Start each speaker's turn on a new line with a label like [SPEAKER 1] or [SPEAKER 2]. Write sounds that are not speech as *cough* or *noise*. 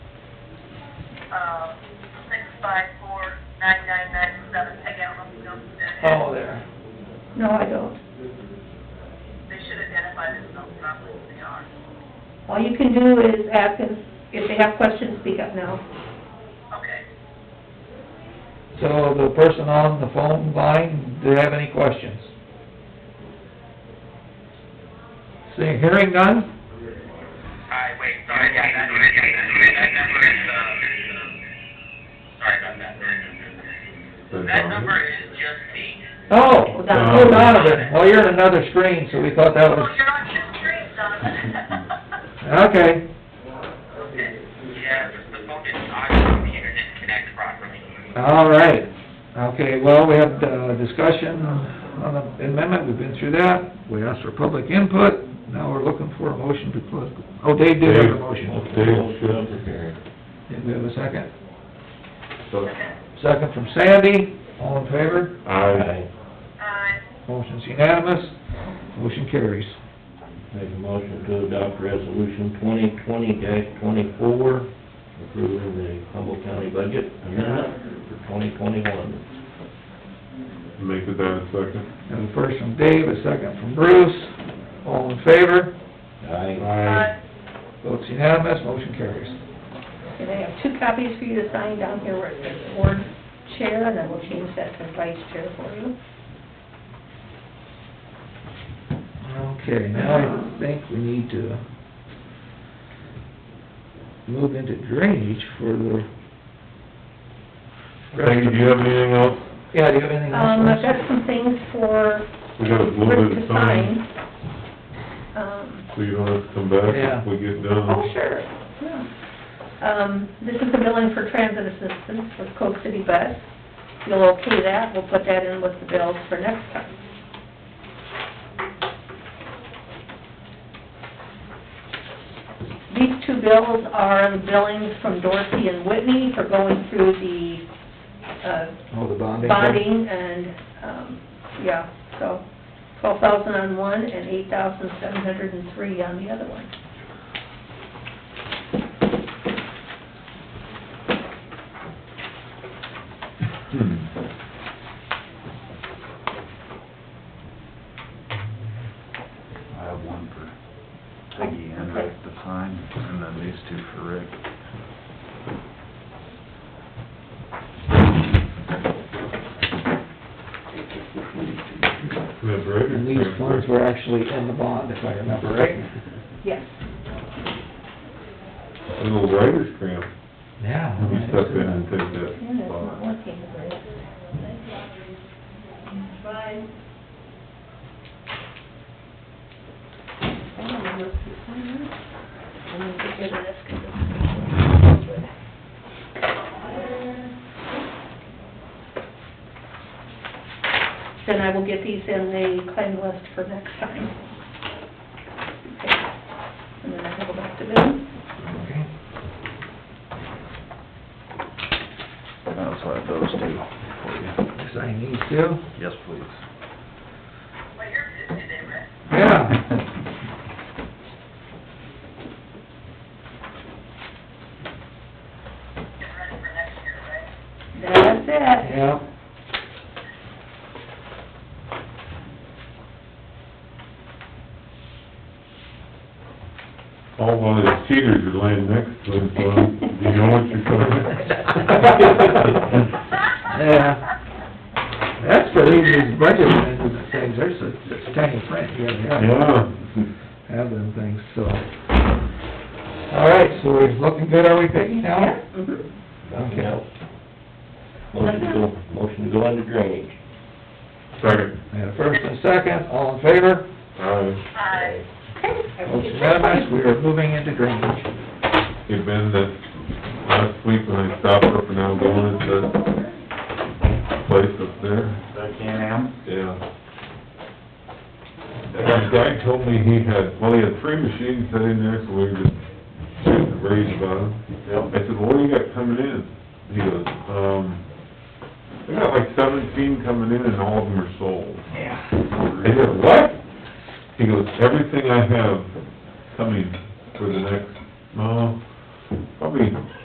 [SPEAKER 1] uh, six five four nine nine nine seven, I don't know if you know who that is.
[SPEAKER 2] Oh, there.
[SPEAKER 3] No, I don't.
[SPEAKER 1] They should identify themselves properly if they are.
[SPEAKER 3] All you can do is ask if, if they have questions, speak up now.
[SPEAKER 1] Okay.
[SPEAKER 2] So the person on the phone line, do they have any questions? Seeing, hearing none?
[SPEAKER 4] I, wait, sorry, yeah, that, that number is, uh, sorry about that. That number is just the,
[SPEAKER 2] Oh, oh, Donovan, well, you're in another screen, so we thought that
[SPEAKER 1] Well,
[SPEAKER 2] was,
[SPEAKER 1] Oh, you're on the screen, Donovan.
[SPEAKER 2] okay.
[SPEAKER 1] Okay.
[SPEAKER 4] yeah, the phone is not, the computer didn't connect properly.
[SPEAKER 2] All right, okay, well, we had uh discussion on the amendment, we've been through that, we asked for public input, now we're looking for a motion to close, oh, Dave did have a motion.
[SPEAKER 5] Dave should.
[SPEAKER 2] Did we have a second?
[SPEAKER 5] So,
[SPEAKER 2] Second from Sandy, all in favor?
[SPEAKER 5] I
[SPEAKER 1] Uh,
[SPEAKER 2] Motion's unanimous, motion carries.
[SPEAKER 5] make a motion to adopt resolution twenty twenty twenty-four, approving the Humboldt County budget amendment for twenty twenty-one.
[SPEAKER 6] Make it that a second.
[SPEAKER 2] And the first from Dave, a second from Bruce, all in favor?
[SPEAKER 5] Aye.
[SPEAKER 1] uh,
[SPEAKER 2] Votes unanimous, motion carries.
[SPEAKER 3] And I have two copies for you to sign down here where it says board chair, and I will change that to vice chair for you.
[SPEAKER 2] Okay, now I think we need to move into drainage for the
[SPEAKER 6] Thank you, do you have anything else?
[SPEAKER 2] Yeah, do you have anything else?
[SPEAKER 3] Um,
[SPEAKER 2] Russ?
[SPEAKER 3] I've got some things for
[SPEAKER 6] We got a little
[SPEAKER 3] Rick
[SPEAKER 6] bit
[SPEAKER 3] to
[SPEAKER 6] of time,
[SPEAKER 3] sign. Um,
[SPEAKER 6] so you don't have to come back
[SPEAKER 2] Yeah.
[SPEAKER 6] if we get
[SPEAKER 3] Oh,
[SPEAKER 6] done.
[SPEAKER 3] sure, yeah. Um, this is the billing for transit assistance with Coke City Bus. You'll okay that, we'll put that in with the bills for next time. These two bills are the billings from Dorsey and Whitney for going through the, uh,
[SPEAKER 2] Oh, the bonding.
[SPEAKER 3] bonding and, um, yeah, so twelve thousand on one and eight thousand seven hundred and three on the other one.
[SPEAKER 7] I have one for Peggy and Rick to sign, and then these two for Rick.
[SPEAKER 6] That's right.
[SPEAKER 2] And these funds were actually in the bond, if I remember right.
[SPEAKER 3] Yes.
[SPEAKER 6] A little writer's cramp,
[SPEAKER 2] Yeah.
[SPEAKER 6] you step in and take that
[SPEAKER 3] Yeah, it's not
[SPEAKER 6] spot.
[SPEAKER 3] working, Rick. I don't know if you sign it. I'm gonna get rid of this 'cause it's- Then I will get these in the claim list for next time. Okay. And then I will go back to them.
[SPEAKER 2] Okay.
[SPEAKER 7] That's why those two for you.
[SPEAKER 2] Sign these too?
[SPEAKER 7] Yes, please.
[SPEAKER 1] well, you're busy there, Rick.
[SPEAKER 2] Yeah.
[SPEAKER 1] Get ready for next year, right?
[SPEAKER 3] That's it.
[SPEAKER 2] Yeah.
[SPEAKER 6] All while his cheaters are laying next to him, so do you know what you're talking about? *laughs*
[SPEAKER 1] *laughs*
[SPEAKER 2] Yeah. That's for these, these budget management things, there's a, it's tiny print here, yeah,
[SPEAKER 6] Yeah.
[SPEAKER 2] have them things, so. All right, so we're looking good, are we, Peggy, now?
[SPEAKER 3] Mhm.
[SPEAKER 5] Nothing else. Motion to go, motion to go into drainage.
[SPEAKER 6] Second.
[SPEAKER 2] And a first and a second, all in favor?
[SPEAKER 6] Aye.
[SPEAKER 1] Uh,
[SPEAKER 3] I will
[SPEAKER 2] Votes
[SPEAKER 3] get that one.
[SPEAKER 2] unanimous, we are moving into drainage.
[SPEAKER 6] Hey, Ben, that, last week when I stopped up and now going into that place up there,
[SPEAKER 7] That can am?
[SPEAKER 6] Yeah. And Guy told me he had, well, he had three machines set in there, so we were just shooting the breeze about them. I said, well, what do you got coming in? He goes, um, I got like seventeen coming in and all of them are sold. I
[SPEAKER 7] Yeah.
[SPEAKER 6] said, what? He goes, everything I have coming for the next, no, probably